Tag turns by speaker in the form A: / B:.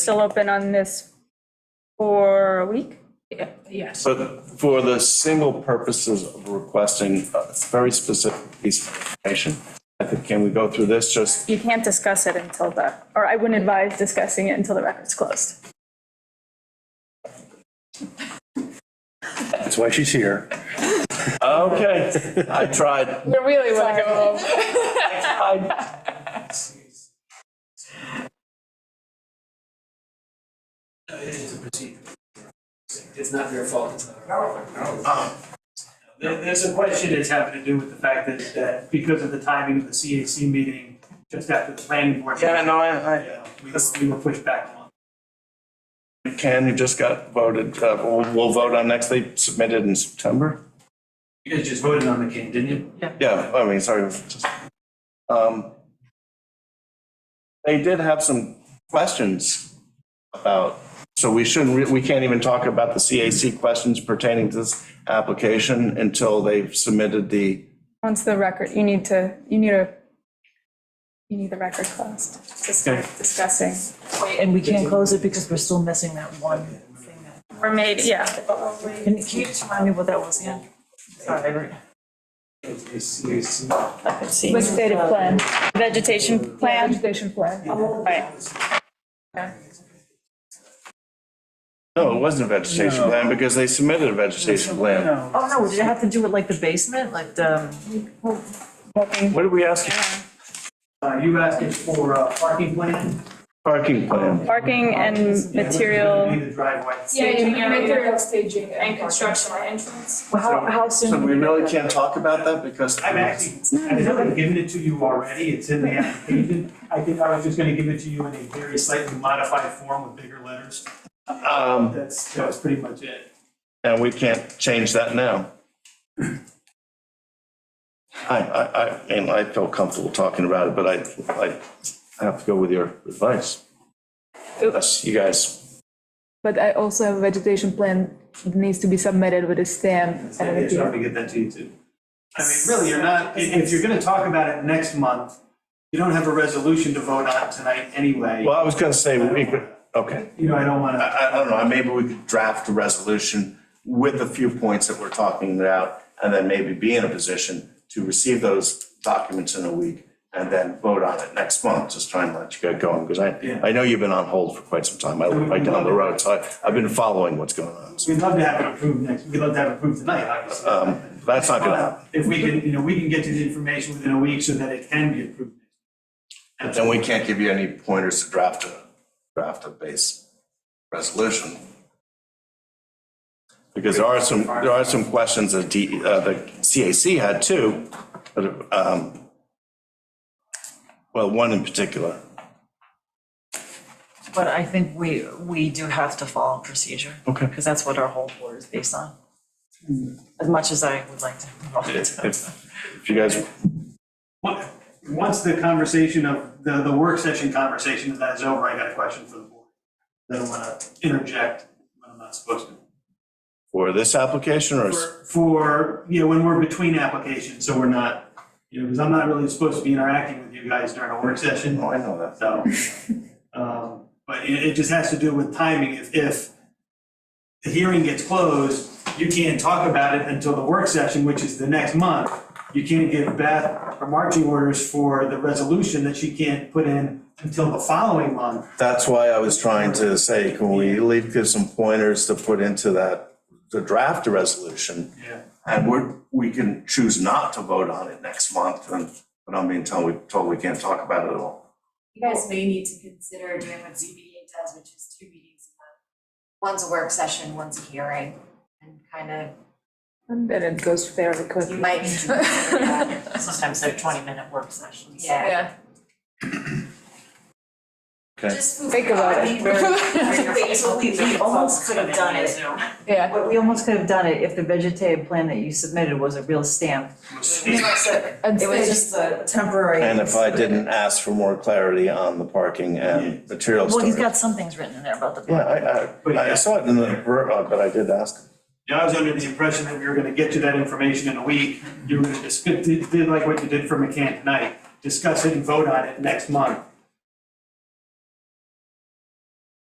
A: still open on this for a week?
B: Yes,
C: But for the single purposes of requesting a very specific piece of information, I think, can we go through this just?
A: You can't discuss it until the, or I wouldn't advise discussing it until the record's closed.
D: That's why she's here.
C: Okay, I tried.
A: I really want to go home.
C: I-
E: It is a procedure. It's not their fault, it's not our fault. There, there's a question that's having to do with the fact that, that because of the timing of the CAC meeting, just after the planning board.
C: Yeah, no, I, I,
E: Yeah, We were, we were pushed back a month.
C: Ken, you just got voted, uh, we'll, we'll vote on next, they submitted in September?
E: You guys just voted on the king, didn't you? Yeah.
C: Yeah, I mean, sorry. just- um, They did have some questions about, so we shouldn't, re- we can't even talk about the CAC questions pertaining to this application until they've submitted the,
A: Once the record, you need to, you need a, you need the record closed to start discussing.
F: And we can't close it because we're still missing that one thing that,
A: Or maybe, yeah,
F: can can you just remind me what that was again? Sorry, I re- I could see.
A: vegetative plan, vegetation plan. Vegetation plan. Right.
C: no, it wasn't a vegetation plan because they submitted a vegetation plan.
B: no,
F: Oh, no, did it have to do with like the basement, like the, um,
C: What did we ask?
E: Uh, you asked us for a parking plan.
C: Parking plan.
A: Parking and
E: Yeah, which is gonna
A: material.
E: be the driveway.
A: material staging and construction entrance.
F: how, how
C: So
F: soon?
C: we really can't talk about that because.
E: I've actually, I've never given it to you already, it's in the application. I think I was just gonna give it to you in a very slightly modified form with bigger letters.
C: Um,
E: That's, that was pretty much it.
C: And we can't change that now. I, I, I, and I feel comfortable talking about it, but I, I have to go with your advice. Yes, you guys,
G: But I also have a vegetation plan that needs to be submitted with a stamp and
E: Maybe I
G: everything.
E: should probably get that to you too. I mean, really, you're not, if, if you're gonna talk about it next month, you don't have a resolution to vote on tonight anyway.
C: well, I was gonna say, we could, okay.
E: You know, I don't
C: I,
E: wanna,
C: I don't know, maybe we could draft a resolution with the few points that we're talking about, and then maybe be in a position to receive those documents in a week and then vote on it next month, just trying to let you get going, because
E: Yeah.
C: I, I know you've been on hold for quite some time. I live right down the road, so I- I've been following what's going on. So,
E: we'd love to have it approved next, we'd love to have it approved tonight, obviously.
C: um, That's not gonna happen.
E: If we can, you know, we can get you the information within a week so that it can be approved. next
C: And
E: month.
C: we can't give you any pointers to draft a, draft a base resolution. Because there are some, there are some questions that D, uh, the CAC had too, but, um, well, one in particular.
F: But I think we, we do have to follow procedure.
C: Okay. Hmm.
F: Because that's what our whole board is based on. As much as I would like to. involve it.
C: If, if you guys,
E: Once- Once the conversation of, the, the work session conversation of that is over, I got a question for the board. I don't wanna interject when I'm not supposed to.
C: for this application or, s-
E: for, you know, when we're between applications, so we're not, you know, because I'm not really supposed to be interacting with you guys during a work session,
C: oh, I know that.
E: so. um, But it, it just has to do with timing. If, if the hearing gets closed, you can't talk about it until the work session, which is the next month. You can't give Beth her marching orders for the resolution that she can't put in until the following month.
C: That's why I was trying to say, can we leave, give some pointers to put into that, to draft a resolution?
E: Yeah.
C: And we're, we can choose not to vote on it next month, and, but I mean, until we, until we can't talk about it at all.
H: You guys may need to consider doing what ZBA does, which is two meetings a month. One's a work session, one's a hearing, and kind of,
G: And then it goes fairly
H: you
G: quickly.
H: might need to consider that.
F: Sometimes they're twenty minute work sessions.
H: Yeah.
C: Okay.
H: Just
G: Think about it.
F: We, we almost could have done it.
G: Yeah.
F: We almost could have done it if the vegetative plan that you submitted was a real stamp.
G: And
F: It was
G: stage-
F: just a temporary.
C: And if I didn't ask for more clarity on the parking and material
F: Well, he's
C: storage.
F: got some things written in there about the.
C: Yeah, I, I, I saw it in the, uh, but I did ask.
E: Yeah, I was under the impression that we were gonna get to that information in a week. You were gonna discuss, did, did like what you did for McCann tonight, discuss it and vote on it next month.